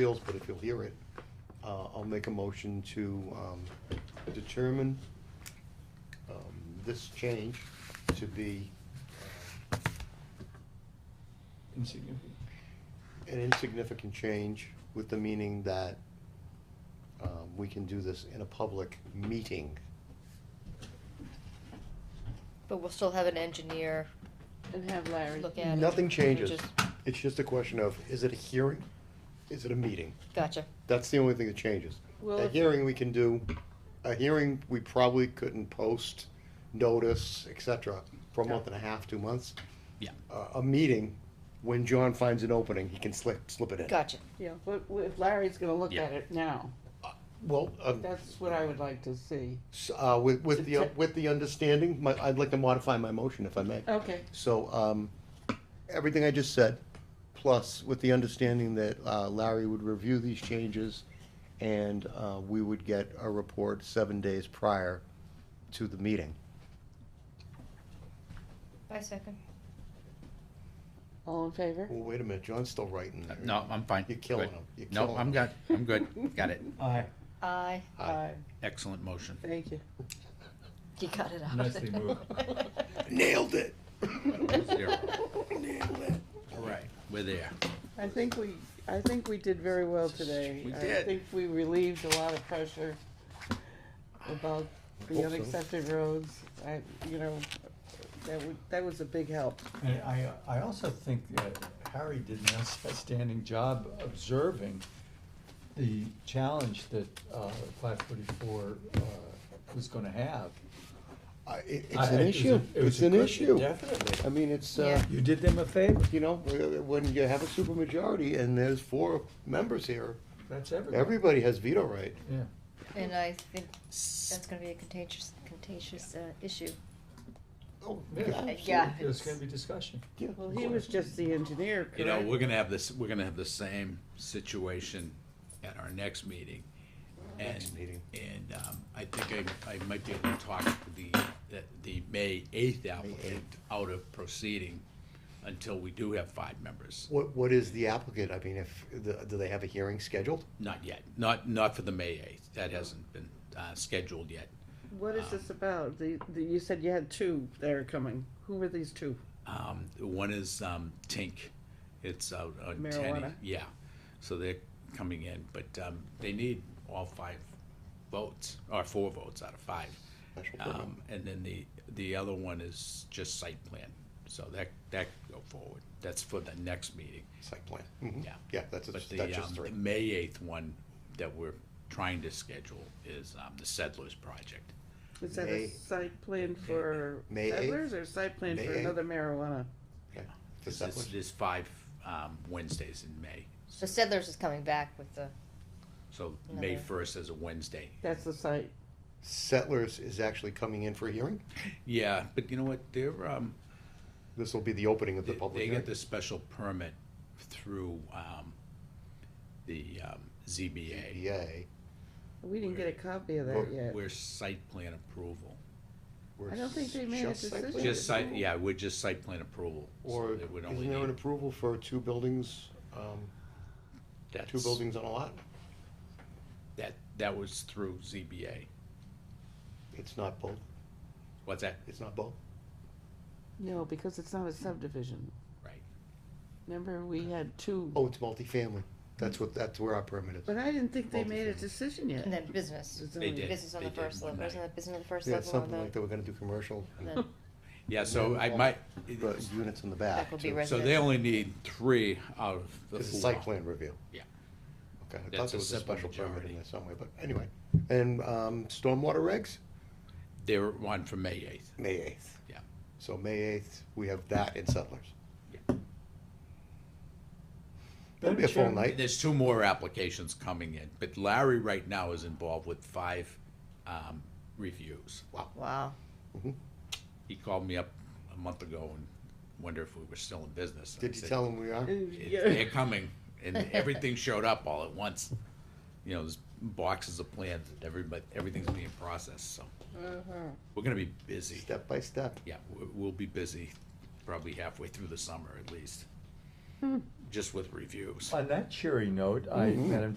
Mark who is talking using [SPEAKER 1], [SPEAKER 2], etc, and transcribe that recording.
[SPEAKER 1] appeals, but if you'll hear it, uh, I'll make a motion to um, determine um, this change to be uh,
[SPEAKER 2] insignificant.
[SPEAKER 1] an insignificant change with the meaning that um, we can do this in a public meeting.
[SPEAKER 3] But we'll still have an engineer
[SPEAKER 4] And have Larry.
[SPEAKER 3] look at it.
[SPEAKER 1] Nothing
[SPEAKER 3] and
[SPEAKER 1] changes.
[SPEAKER 3] just-
[SPEAKER 1] It's just a question of, is it a hearing? Is it a meeting?
[SPEAKER 3] Gotcha.
[SPEAKER 1] That's the only thing that changes.
[SPEAKER 4] Well,
[SPEAKER 1] A
[SPEAKER 4] if-
[SPEAKER 1] hearing we can do, a hearing we probably couldn't post, notice, et cetera, for a month and a half, two months. Uh,
[SPEAKER 5] Yeah.
[SPEAKER 1] A, a meeting, when John finds an opening, he can slip, slip it in.
[SPEAKER 3] Gotcha.
[SPEAKER 4] Yeah, but w- if Larry's gonna look
[SPEAKER 5] Yeah.
[SPEAKER 4] at it now,
[SPEAKER 1] Well, um,
[SPEAKER 4] that's what I would like to see.
[SPEAKER 1] s- uh, with, with the, with the understanding, my, I'd like to modify my motion if I may.
[SPEAKER 4] Okay,
[SPEAKER 1] So, um, everything I just said, plus with the understanding that uh, Larry would review these changes and, uh, we would get a report seven days prior to the meeting.
[SPEAKER 3] I second.
[SPEAKER 4] all in favor?
[SPEAKER 1] Well, wait a minute, John's still writing there.
[SPEAKER 5] No, I'm fine.
[SPEAKER 1] You're killing
[SPEAKER 5] Good.
[SPEAKER 1] him. You're
[SPEAKER 5] No,
[SPEAKER 1] killing
[SPEAKER 5] I'm
[SPEAKER 1] him.
[SPEAKER 5] good, I'm good, got it,
[SPEAKER 2] Aye.
[SPEAKER 3] Aye.
[SPEAKER 1] Aye.
[SPEAKER 5] excellent motion.
[SPEAKER 4] Thank you.
[SPEAKER 3] You got it out.
[SPEAKER 2] Nicely moved.
[SPEAKER 1] Nailed it.
[SPEAKER 5] Zero. All right, we're there.
[SPEAKER 4] I think we, I think we did very well today.
[SPEAKER 5] We
[SPEAKER 4] I
[SPEAKER 5] did.
[SPEAKER 4] think we relieved a lot of pressure about the
[SPEAKER 1] Hope so.
[SPEAKER 4] unaccepted roads. I, you know, that would, that was a big help.
[SPEAKER 2] And I, I also think that Harry did an outstanding job observing the challenge that, uh, five forty-four, uh, was gonna have.
[SPEAKER 1] I- it-
[SPEAKER 2] I-
[SPEAKER 1] It's an
[SPEAKER 2] it was a-
[SPEAKER 1] issue.
[SPEAKER 2] it was
[SPEAKER 1] It's
[SPEAKER 2] a
[SPEAKER 1] an
[SPEAKER 2] good-
[SPEAKER 1] issue. I
[SPEAKER 2] Definitely.
[SPEAKER 1] mean, it's, uh,
[SPEAKER 3] Yeah.
[SPEAKER 2] You did them a favor,
[SPEAKER 1] you know, uh, when you have a supermajority and there's four members here,
[SPEAKER 2] that's everybody,
[SPEAKER 1] everybody has veto right.
[SPEAKER 2] yeah.
[SPEAKER 3] And I think that's gonna be a contentious, contentious, uh, issue.
[SPEAKER 1] Oh,
[SPEAKER 3] Yeah.
[SPEAKER 2] There's gonna be discussion.
[SPEAKER 1] Yeah,
[SPEAKER 4] Well,
[SPEAKER 1] of
[SPEAKER 4] he was
[SPEAKER 1] course.
[SPEAKER 4] just the engineer,
[SPEAKER 5] You know,
[SPEAKER 4] correct?
[SPEAKER 5] we're gonna have this, we're gonna have the same situation at our next meeting. And-
[SPEAKER 1] Next meeting.
[SPEAKER 5] And, um, I think I, I might be able to talk the, the- the May eighth applicant out of proceeding until we do have five members.
[SPEAKER 1] What, what is the applicant? I mean, if, the- do they have a hearing scheduled?
[SPEAKER 5] Not yet, not, not for the May eighth, that hasn't been, uh, scheduled yet.
[SPEAKER 4] What
[SPEAKER 5] Ah.
[SPEAKER 4] is this about? The, the, you said you had two that are coming. Who were these two?
[SPEAKER 5] Um, one is um, Tink. It's out on Tenny.
[SPEAKER 4] Marijuana.
[SPEAKER 5] Yeah. So they're coming in, but um, they need all five votes or four votes out of five.
[SPEAKER 1] Special permit.
[SPEAKER 5] Um, and then the the other one is just site plan. So that that can go forward. That's for the next meeting.
[SPEAKER 1] Site plan. Mhm.
[SPEAKER 5] Yeah.
[SPEAKER 1] Yeah, that's,
[SPEAKER 5] But
[SPEAKER 1] that's
[SPEAKER 5] the,
[SPEAKER 1] just
[SPEAKER 5] um,
[SPEAKER 1] three.
[SPEAKER 5] the May eighth one that we're trying to schedule is um, the Settlers Project.
[SPEAKER 4] Is that
[SPEAKER 1] May-
[SPEAKER 4] a site plan for
[SPEAKER 1] May eighth?
[SPEAKER 4] settlers or site plan
[SPEAKER 1] May
[SPEAKER 4] for
[SPEAKER 1] eighth?
[SPEAKER 4] another marijuana?
[SPEAKER 1] Okay. The
[SPEAKER 5] There's,
[SPEAKER 1] set
[SPEAKER 5] there's
[SPEAKER 1] list.
[SPEAKER 5] there's five um, Wednesdays in May.
[SPEAKER 3] So Settlers is coming back with the,
[SPEAKER 5] So May
[SPEAKER 3] Another-
[SPEAKER 5] first is a Wednesday.
[SPEAKER 4] That's the site.
[SPEAKER 1] Settlers is actually coming in for a hearing?
[SPEAKER 5] Yeah, but you know what, they're, um,
[SPEAKER 1] This will be the opening of the
[SPEAKER 5] they
[SPEAKER 1] public
[SPEAKER 5] they
[SPEAKER 1] hearing?
[SPEAKER 5] get the special permit through, um, the, um, ZBA.
[SPEAKER 1] ZBA.
[SPEAKER 4] We didn't get a copy of that
[SPEAKER 1] Well,
[SPEAKER 4] yet.
[SPEAKER 5] We're site plan approval,
[SPEAKER 1] We're
[SPEAKER 4] I don't think they made a
[SPEAKER 1] just site plan
[SPEAKER 4] decision.
[SPEAKER 5] just site,
[SPEAKER 1] approval?
[SPEAKER 5] yeah, we're just site plan approval. so
[SPEAKER 1] Or
[SPEAKER 5] they would only
[SPEAKER 1] isn't there an
[SPEAKER 5] need-
[SPEAKER 1] approval for two buildings, um, two
[SPEAKER 5] that's-
[SPEAKER 1] buildings on a lot?
[SPEAKER 5] That, that was through ZBA,
[SPEAKER 1] It's not both,
[SPEAKER 5] what's that,
[SPEAKER 1] it's not both?
[SPEAKER 4] No, because it's not a subdivision.
[SPEAKER 5] right,
[SPEAKER 4] Remember, we had two,
[SPEAKER 1] Oh, it's multifamily, that's what, that's where our permit is.
[SPEAKER 4] but I didn't think they made a
[SPEAKER 1] Multifamily.
[SPEAKER 4] decision
[SPEAKER 3] and
[SPEAKER 4] yet.
[SPEAKER 3] then business.
[SPEAKER 4] It's
[SPEAKER 5] They
[SPEAKER 4] only-
[SPEAKER 5] did.
[SPEAKER 3] Business on
[SPEAKER 5] they
[SPEAKER 3] the
[SPEAKER 5] did
[SPEAKER 3] first
[SPEAKER 5] one
[SPEAKER 3] level,
[SPEAKER 5] night.
[SPEAKER 3] wasn't it business on the first
[SPEAKER 1] Yeah,
[SPEAKER 3] level?
[SPEAKER 1] something
[SPEAKER 3] and
[SPEAKER 1] like that, we're gonna do commercial,
[SPEAKER 3] the- the-
[SPEAKER 5] yeah, so I might,
[SPEAKER 1] but units in the back.
[SPEAKER 3] That will be
[SPEAKER 1] too.
[SPEAKER 5] so they only need three out of the four.
[SPEAKER 1] It's a site plan review.
[SPEAKER 5] Yeah.
[SPEAKER 1] Okay, I thought
[SPEAKER 5] That's a
[SPEAKER 1] there was a
[SPEAKER 5] simple
[SPEAKER 1] special permit
[SPEAKER 5] majority.
[SPEAKER 1] in there somewhere, but anyway, and, um, stormwater regs,
[SPEAKER 5] They're one for May eighth,
[SPEAKER 1] May eighth.
[SPEAKER 5] yeah.
[SPEAKER 1] So May eighth, we have that in Settlers. That'll be a full
[SPEAKER 2] Chairman,
[SPEAKER 1] night.
[SPEAKER 5] There's two more applications coming in, but Larry right now is involved with five um, reviews.
[SPEAKER 3] Wow.
[SPEAKER 5] He called me up a month ago and wondered if we were still in business. and I
[SPEAKER 1] Did you
[SPEAKER 5] said,
[SPEAKER 1] tell them we are?
[SPEAKER 4] And
[SPEAKER 5] "It-
[SPEAKER 4] yeah,
[SPEAKER 5] They're coming, and everything showed up all at once. You know, there's boxes of plans, and everybody, everything's being processed, so
[SPEAKER 4] uh-huh.
[SPEAKER 5] we're gonna be busy.
[SPEAKER 1] Step by step.
[SPEAKER 5] Yeah, we- we'll be busy probably halfway through the summer at least. just with reviews.
[SPEAKER 1] Mm-hmm.
[SPEAKER 2] On that cheery note, I, Madam Chair,